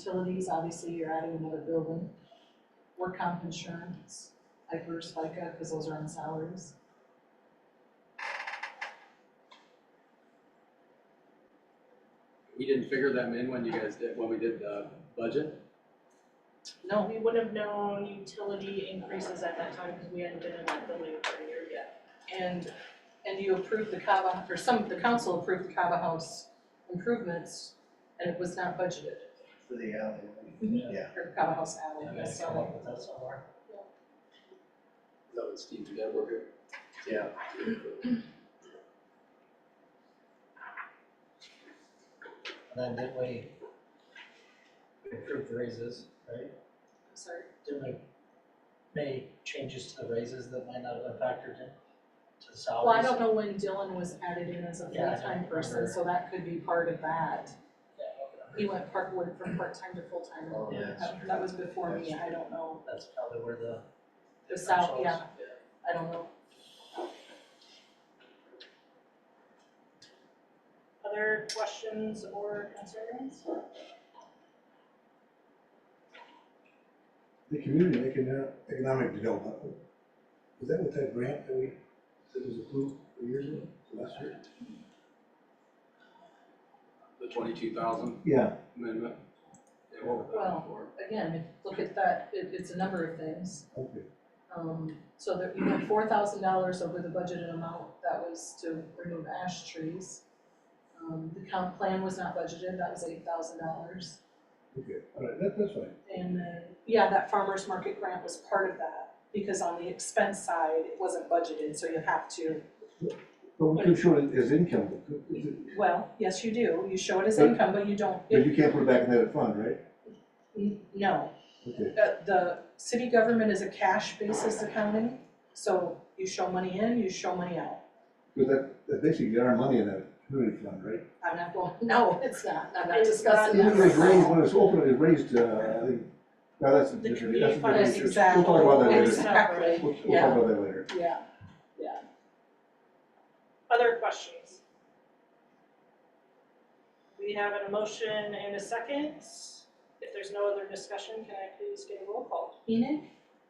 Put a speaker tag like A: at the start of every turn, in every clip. A: utilities, obviously you're adding another building. Work comp insurance, like versus FICA, because those are on salaries.
B: We didn't figure them in when you guys did, when we did the budget?
C: No, we would have known utility increases at that time because we hadn't been in that building for a year yet.
A: And, and you approved the Kava, or some, the council approved the Kava House improvements, and it was not budgeted
D: for the alley.
A: for Kava House alley,
E: Yeah,
A: so.
E: come up with that somewhere.
B: Is that what Steve did over here?
D: Yeah.
E: And then didn't we approve raises, right?
A: I'm sorry,
E: Didn't we make changes to the raises that might not have been factored in to the salaries?
A: well, I don't know when Dylan was added in as a
E: Yeah, I don't
A: full-time person,
E: remember.
A: so that could be part of that.
E: Yeah, okay.
A: He went part, went from part-time to full-time,
D: Oh,
E: Yeah.
D: that's
A: that,
D: true.
A: that was before me, I don't know,
E: That's probably where the.
A: the sal,
E: differentials-
A: yeah, I don't know.
C: Other questions or concerns?
F: The community econo- economic development, is that what that grant that we, that was approved years ago, last year?
B: The twenty-two thousand
F: Yeah.
B: amendment? Yeah, what was
A: Well-
B: that for?
A: Again, if, look at that, it, it's a number of things.
F: Okay,
A: Um, so there, you went four thousand dollars over the budgeted amount, that was to remove ash trees. Um, the comp plan was not budgeted, that was eight thousand dollars.
F: okay, all right, that, that's fine.
A: And then, yeah, that farmer's market grant was part of that, because on the expense side, it wasn't budgeted, so you have to,
F: But we could show it as income, but could- is it-
A: well, yes, you do, you show it as income, but you don't,
F: but you can't put it back in that fund, right?
A: N- no.
F: Okay.
A: The, the city government is a cash basis accounting, so you show money in, you show money out.
F: Because that, that's basically our money in that community fund, right?
A: I'm not going, no, it's not, I'm not
C: It's
A: discussing
F: It
A: that
F: was
A: right
F: raised,
A: now.
F: when it was opened, it was raised, uh, I think, now that's a
C: The
F: different, that's a
C: community fund
F: different
C: is
F: issue. We'll talk about that
C: It's
F: later,
A: Exactly,
F: we'll, we'll
A: yeah.
F: talk about that later.
A: yeah,
C: Other questions? We have an emotion and a second. If there's no other discussion, can I please get a roll call?
A: Enoch.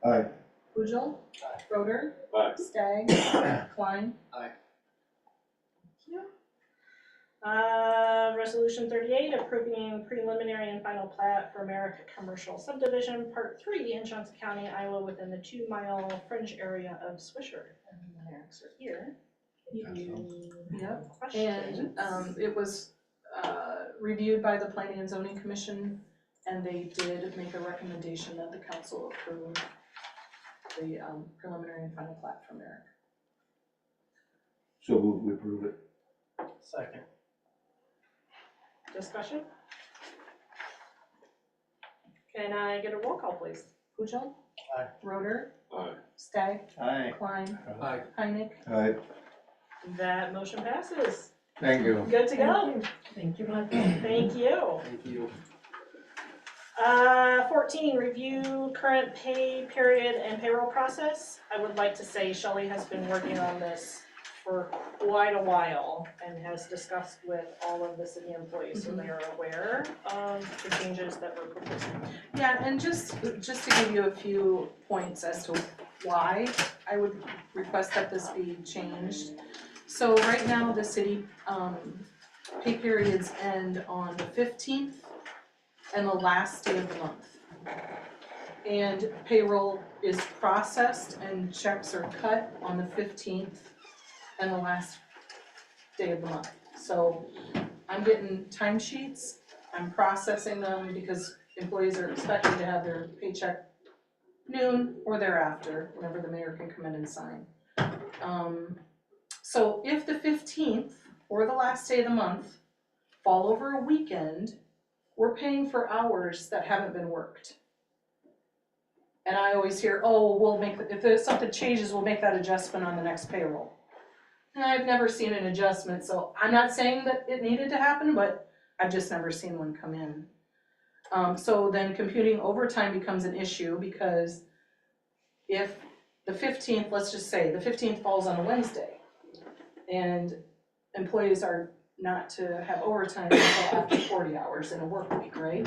F: Aye.
A: Pujol.
E: Aye.
A: Roder.
B: Aye.
A: Stagg. Klein.
C: Uh, resolution thirty-eight, approving preliminary and final plat for America Commercial Subdivision, Part Three in Johnson County, Iowa, within the two-mile fringe area of Swisher.
A: And the Merricks are here.
C: Yep.
A: Yep.
C: Questions?
A: And, um, it was, uh, reviewed by the planning and zoning commission, and they did make a recommendation that the council approve the, um, preliminary and final plat from Merrick.
F: So we'll, we approve it.
E: Second.
C: Discussion? Can I get a roll call, please?
A: Pujol.
E: Aye.
A: Roder.
B: Aye.
A: Stagg.
D: Aye.
A: Klein.
B: Aye.
A: Heinek.
F: All right,
C: That motion passes.
F: thank you.
C: Good to go.
G: Thank you, Michael.
C: Thank you.
B: Thank you.
C: Uh, fourteen, review current pay period and payroll process. I would like to say Shelley has been working on this for quite a while and has discussed with all of the city employees, so they are aware of the changes that we're proposing.
A: Yeah, and just, just to give you a few points as to why I would request that this be changed. So right now, the city, um, pay periods end on the fifteenth and the last day of the month. And payroll is processed and checks are cut on the fifteenth and the last day of the month. So I'm getting timesheets I'm processing them because employees are expected to have their paycheck noon or thereafter, whenever the mayor can come in and sign. Um, so if the fifteenth or the last day of the month fall over a weekend, we're paying for hours that haven't been worked. And I always hear, oh, we'll make, if there's something changes, we'll make that adjustment on the next payroll. And I've never seen an adjustment, so I'm not saying that it needed to happen, but I've just never seen one come in. Um, so then computing overtime becomes an issue because if the fifteenth, let's just say, the fifteenth falls on a Wednesday and employees are not to have overtime until after forty hours in a work week, right?